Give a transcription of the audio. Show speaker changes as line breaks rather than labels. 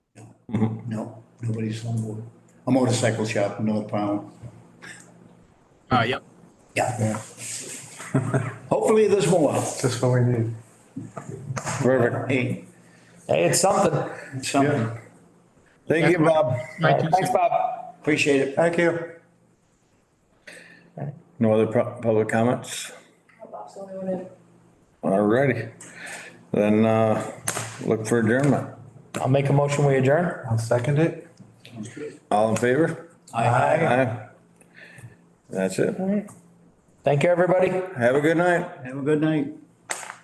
Mm-hmm.
No, nobody's on board. A motorcycle shop in North Pownell.
Uh, yep.
Yeah.
Yeah.
Hopefully there's more.
That's what we need.
Perfect.
Hey,
Hey, it's something.
something.
Thank you, Bob.
Thank you.
Thanks, Bob.
Appreciate it.
Thank you.
No other pu- public comments?
Bob's the only one in.
All righty. Then, uh, look for adjournment.
I'll make a motion, we adjourn.
I'll second it.
All in favor?
Aye.
Aye. That's it.
Thank you, everybody.
Have a good night.
Have a good night.